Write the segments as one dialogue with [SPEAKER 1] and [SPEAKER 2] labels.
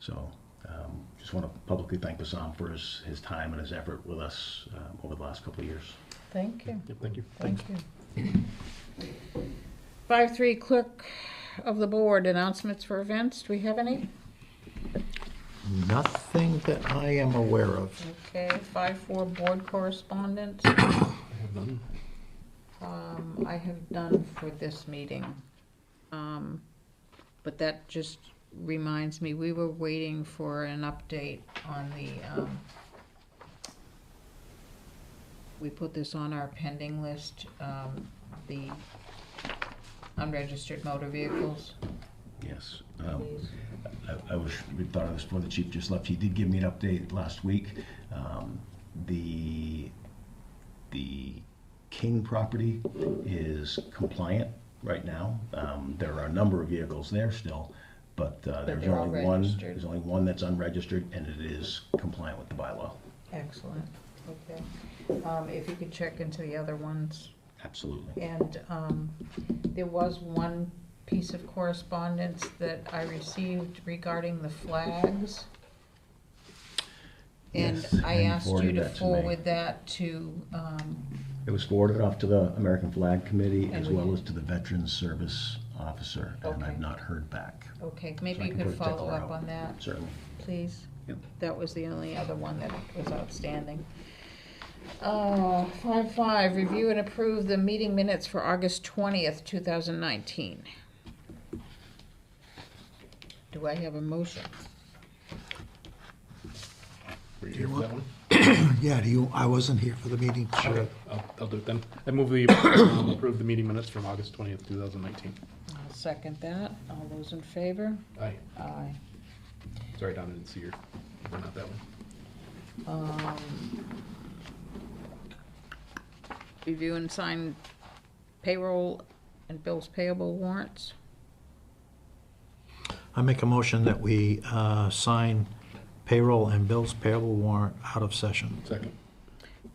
[SPEAKER 1] So um, just want to publicly thank Bassam for his, his time and his effort with us um, over the last couple of years.
[SPEAKER 2] Thank you,
[SPEAKER 3] Thank you.
[SPEAKER 2] thank you. Five, three, clerk of the board, announcements for events, do we have any?
[SPEAKER 3] Nothing that I am aware of.
[SPEAKER 2] Okay, five, four, board correspondence. Um, I have done for this meeting. Um, But that just reminds me, we were waiting for an update on the, um, we put this on our pending list, um, the unregistered motor vehicles.
[SPEAKER 1] Yes. Um, I, I wish we thought of this before the chief just left. He did give me an update last week. Um, the the King property is compliant right now. Um, there are a number of vehicles there still, but uh, there's
[SPEAKER 2] they're all
[SPEAKER 1] only one.
[SPEAKER 2] registered.
[SPEAKER 1] There's only one that's unregistered, and it is compliant with the bylaw.
[SPEAKER 2] Excellent, okay. Um, If you could check into the other ones.
[SPEAKER 1] Absolutely.
[SPEAKER 2] And um, there was one piece of correspondence that I received regarding the flags. And
[SPEAKER 1] Yes,
[SPEAKER 2] I
[SPEAKER 1] and
[SPEAKER 2] asked you
[SPEAKER 1] forwarded
[SPEAKER 2] to
[SPEAKER 1] that to me.
[SPEAKER 2] forward that to, um,
[SPEAKER 1] It was forwarded off to the American Flag Committee
[SPEAKER 2] And
[SPEAKER 1] as
[SPEAKER 2] we
[SPEAKER 1] well
[SPEAKER 2] did.
[SPEAKER 1] as to the Veterans Service Officer, and
[SPEAKER 2] Okay.
[SPEAKER 1] I've not heard back.
[SPEAKER 2] okay, maybe
[SPEAKER 1] I
[SPEAKER 2] you
[SPEAKER 1] can
[SPEAKER 2] could
[SPEAKER 1] put a tickler
[SPEAKER 2] follow up
[SPEAKER 1] out.
[SPEAKER 2] on that,
[SPEAKER 1] Certainly.
[SPEAKER 2] please?
[SPEAKER 1] Yep.
[SPEAKER 2] That was the only other one that was outstanding. Uh, Five, five, review and approve the meeting minutes for August twentieth, two thousand nineteen. Do I have a motion?
[SPEAKER 3] Were you here for that one?
[SPEAKER 4] Yeah, do you, I wasn't here for the meeting.
[SPEAKER 3] Okay, I'll, I'll do it then. I move the, approve the meeting minutes from August twentieth, two thousand nineteen.
[SPEAKER 2] I'll second that. All those in favor?
[SPEAKER 3] Aye.
[SPEAKER 2] Aye.
[SPEAKER 3] Sorry, Don, I didn't see your, or not that one.
[SPEAKER 2] Review and sign payroll and bills payable warrants.
[SPEAKER 4] I make a motion that we uh, sign payroll and bills payable warrant out of session.
[SPEAKER 3] Second.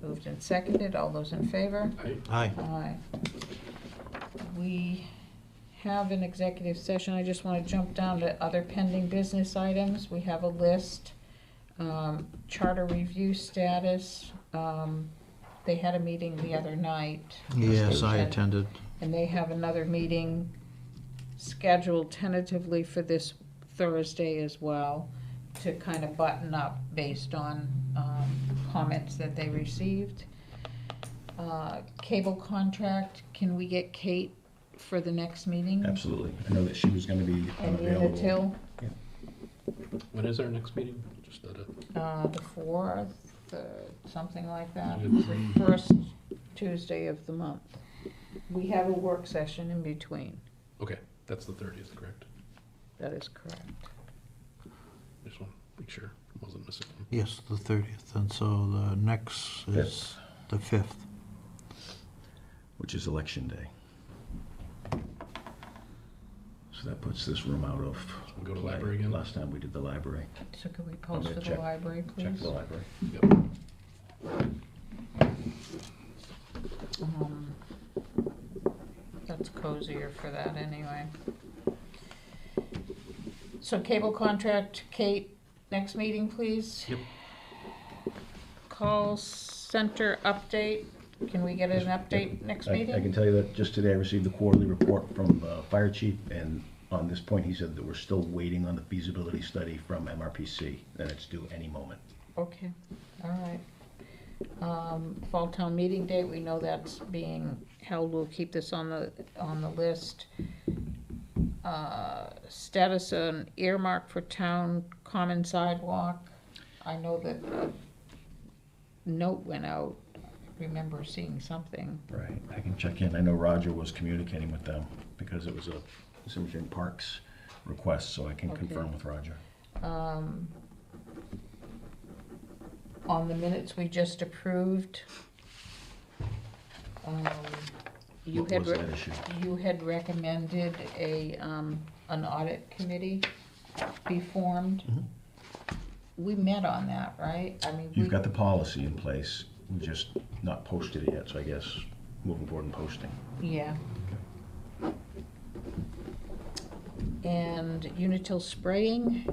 [SPEAKER 2] Moved and seconded. All those in favor?
[SPEAKER 3] Aye.
[SPEAKER 4] Aye.
[SPEAKER 2] Aye. We have an executive session. I just want to jump down to other pending business items. We have a list. Um, Charter review status. um, They had a meeting the other night.
[SPEAKER 4] Yes, I
[SPEAKER 2] And-
[SPEAKER 4] attended.
[SPEAKER 2] And they have another meeting scheduled tentatively for this Thursday as well to kind of button up based on um, comments that they received. Uh, Cable contract, can we get Kate for the next meeting?
[SPEAKER 1] Absolutely. I know that she was going to be
[SPEAKER 2] And
[SPEAKER 1] unavailable.
[SPEAKER 2] Unitil,
[SPEAKER 3] When is our next meeting? Just at a,
[SPEAKER 2] uh, the fourth, uh, something like that,
[SPEAKER 3] Mhm.
[SPEAKER 2] the first Tuesday of the month. We have a work session in between,
[SPEAKER 3] okay, that's the thirtieth, correct?
[SPEAKER 2] that is correct.
[SPEAKER 3] Just want to make sure, I wasn't missing one.
[SPEAKER 4] Yes, the 30th, and so the next is the 5th.
[SPEAKER 1] which is election day. So that puts this room out of.
[SPEAKER 3] We'll go to
[SPEAKER 1] play.
[SPEAKER 3] library again?
[SPEAKER 1] Last time we did the library.
[SPEAKER 2] So could we post
[SPEAKER 1] gonna
[SPEAKER 2] for the
[SPEAKER 1] check-
[SPEAKER 2] library,
[SPEAKER 1] Check
[SPEAKER 2] please?
[SPEAKER 1] the library.
[SPEAKER 3] Yep.
[SPEAKER 2] Um, That's cozier for that anyway. So cable contract, Kate, next meeting, please?
[SPEAKER 3] Yep.
[SPEAKER 2] Call center update, can we get an update next
[SPEAKER 1] I- I can
[SPEAKER 2] meeting?
[SPEAKER 1] tell you that just today I received the quarterly report from the fire chief, and on this point, he said that we're still waiting on the feasibility study from MRPC, and it's due any moment.
[SPEAKER 2] Okay, all right. Um, fall town meeting date, we know that's being held, we'll keep this on the, on the list. Uh, status on earmark for town common sidewalk, I know that a note went out, I remember seeing something.
[SPEAKER 1] Right, I can check in. I know Roger was communicating with them because it was a Simsbury Parks request, so I can
[SPEAKER 2] Okay.
[SPEAKER 1] confirm with Roger.
[SPEAKER 2] Um, on the minutes we just approved. Um, You
[SPEAKER 1] What
[SPEAKER 2] had,
[SPEAKER 1] was
[SPEAKER 2] re- Mhm.
[SPEAKER 1] that issue?
[SPEAKER 2] you had recommended a, um, an audit committee be formed. We met on that, right? I mean, we,
[SPEAKER 1] Mm-hmm. You've got the policy in place, we just not posted it yet, so I guess moving forward and posting.
[SPEAKER 2] yeah. And Unitil spraying.